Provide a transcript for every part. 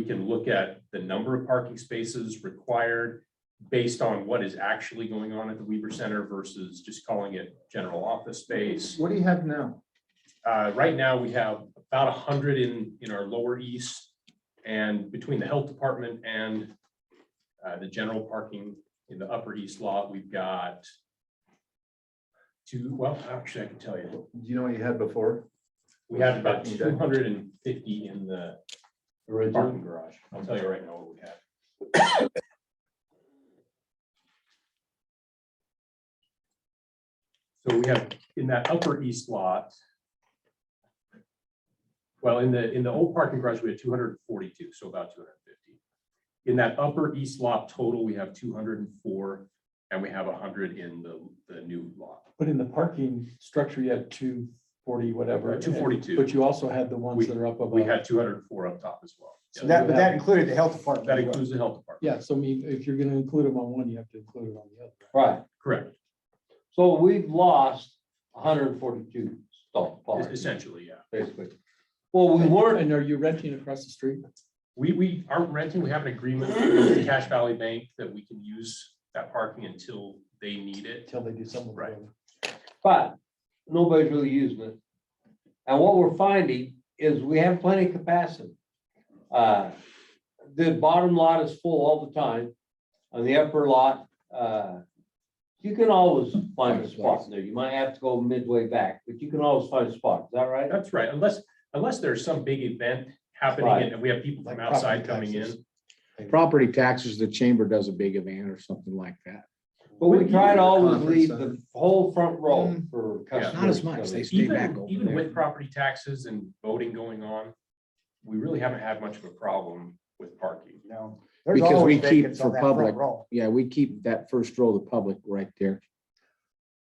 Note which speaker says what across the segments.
Speaker 1: we can look at the number of parking spaces required based on what is actually going on at the Weaver Center versus just calling it general office space.
Speaker 2: What do you have now?
Speaker 1: Uh, right now, we have about a hundred in, in our lower east. And between the health department and uh, the general parking in the upper east lot, we've got two, well, actually, I can tell you,
Speaker 2: Do you know what you had before?
Speaker 1: we had about two hundred and fifty in the parking garage. I'll tell you right now what we have. So we have in that upper east lot. Well, in the, in the old parking garage, we had two hundred and forty-two, so about two hundred and fifty. In that upper east lot total, we have two hundred and four, and we have hundred in the, the new lot,
Speaker 3: But in the parking structure, you had two forty, whatever.
Speaker 1: two forty-two.
Speaker 3: But you also had the ones that are up above.
Speaker 1: We had two hundred and four up top as well.
Speaker 4: So that, but that included the health department.
Speaker 1: That includes the health department,
Speaker 3: Yeah, so I mean, if you're gonna include them on one, you have to include it on the other.
Speaker 5: Right,
Speaker 1: correct?
Speaker 5: so we've lost hundred and forty-two stall
Speaker 1: Es-
Speaker 5: parks,
Speaker 1: Essentially, yeah.
Speaker 5: basically. Well, we weren't,
Speaker 3: And are you renting across the street?
Speaker 1: We, we aren't renting. We have an agreement with Cash Valley Bank that we can use that parking until they need it.
Speaker 3: Until they do something.
Speaker 1: Right.
Speaker 5: but nobody's really using it. And what we're finding is we have plenty of capacity. Uh, The bottom lot is full all the time, on the upper lot, uh, you can always find a spot in there, you might have to go midway back, but you can always find a spot, is that right?
Speaker 1: That's right, unless, unless there's some big event happening and we have people from outside coming in.
Speaker 6: Property taxes, the chamber does a big event or something like that.
Speaker 5: But we
Speaker 2: Wouldn't
Speaker 5: try
Speaker 2: you
Speaker 5: to
Speaker 2: do a
Speaker 5: always
Speaker 2: conference
Speaker 5: leave
Speaker 2: center?
Speaker 5: the whole front row for
Speaker 1: Yeah.
Speaker 5: customers.
Speaker 6: Mm-hmm. Not as much. They
Speaker 5: coming.
Speaker 6: stay back
Speaker 1: Even,
Speaker 6: over
Speaker 1: even with
Speaker 6: there.
Speaker 1: property taxes and voting going on, we really haven't had much of a problem with parking.
Speaker 4: No.
Speaker 6: Because we keep for public. Yeah, we keep that first row of the public right there.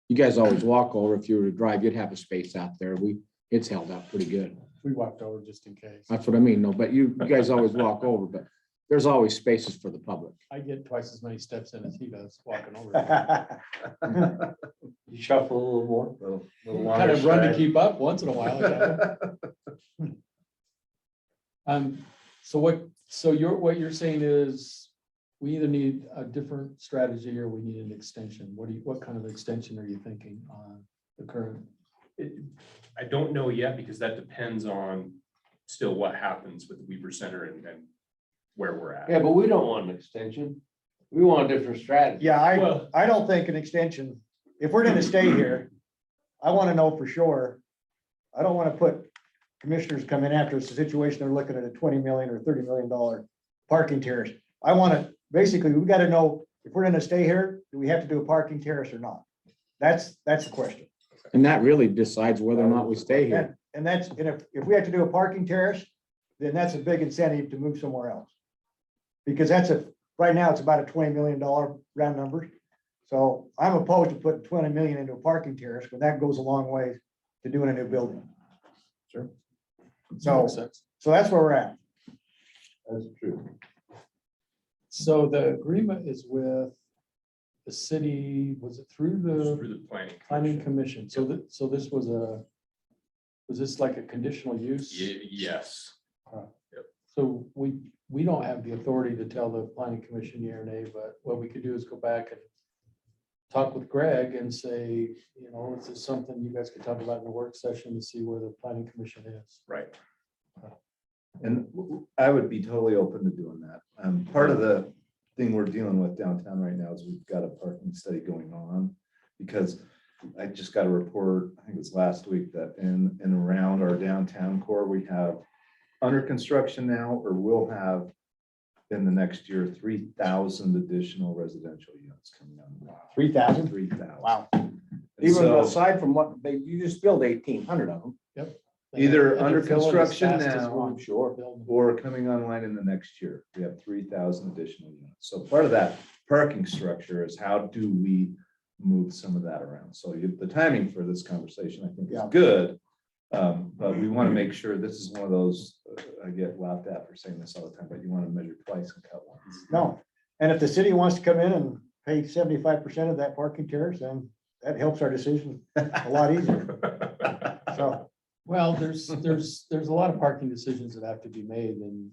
Speaker 6: You guys always walk over. If you were to drive, you'd have a space out there. We, it's held out pretty good.
Speaker 3: We walked over just in case.
Speaker 6: That's what I mean. No, but you, you guys always walk over, but there's always spaces for the public.
Speaker 3: I get twice as many steps in as he does walking over.
Speaker 4: Kind
Speaker 5: You shuffle a little more.
Speaker 3: Kind of run to keep up once in a while. I gotta- Um, so what, so you're, what you're saying is we either need a different strategy or we need an extension. What do you, what kind of extension are you thinking on the current?
Speaker 1: It- I don't know yet because that depends on still what happens with the Weaver Center and, and where we're at.
Speaker 5: Yeah, but we don't want an extension. We want a different strategy.
Speaker 4: Yeah, I,
Speaker 1: Well-
Speaker 4: I don't think an extension, if we're gonna stay here, I wanna know for sure. I don't wanna put commissioners come in after it's a situation, they're looking at a twenty million or thirty million dollar parking terrace. I wanna, basically, we gotta know if we're gonna stay here, do we have to do a parking terrace or not? That's, that's the question.
Speaker 6: And that really decides whether or not we stay here.
Speaker 4: And that's, and if, if we have to do a parking terrace, then that's a big incentive to move somewhere else. Because that's a, right now, it's about a twenty million dollar round number. So I'm opposed to putting twenty million into a parking terrace, but that goes a long way to doing a new building.
Speaker 3: Sure.
Speaker 4: So, so that's where we're at.
Speaker 5: That's true.
Speaker 3: So the agreement is with the city, was it through
Speaker 1: Through
Speaker 3: the
Speaker 1: the planning.
Speaker 3: planning
Speaker 1: commission.
Speaker 3: commission? So that, so this was a, was this like a conditional use?
Speaker 1: Ye- Yes.
Speaker 3: So we, we don't have the authority to tell the planning commission yea or nay, but what we could do is go back and talk with Greg and say, you know, is this something you guys could talk about in a work session to see where the planning commission is?
Speaker 1: Right.
Speaker 2: And w- w- I would be totally open to doing that. Um, part of the thing we're dealing with downtown right now is we've got a parking study going on. Because I just got a report, I think it was last week, that in and around our downtown core, we have under construction now, or will have in the next year, three thousand additional residential units coming on.
Speaker 4: Three thousand?
Speaker 2: Three thousand.
Speaker 4: Wow.
Speaker 6: Even aside from what, they, you just build eighteen hundred of them.
Speaker 2: Either
Speaker 3: And they're
Speaker 2: under
Speaker 3: filling as
Speaker 2: construction
Speaker 3: fast as
Speaker 2: now,
Speaker 3: we're
Speaker 2: I'm sure.
Speaker 3: building.
Speaker 2: or coming online in the next year. We have three thousand additional units. So part of that parking structure is how do we move some of that around? So you- the timing for this conversation, I think, is
Speaker 4: Yeah.
Speaker 2: good. Um, but we want to make sure this is one of those, uh, I get laughed at for saying this all the time, but you want to measure twice and cut once.
Speaker 4: No. And if the city wants to come in and pay seventy-five percent of that parking terrace, then that helps our decision a lot easier. So,
Speaker 3: Well, there's, there's, there's a lot of parking decisions that have to be made and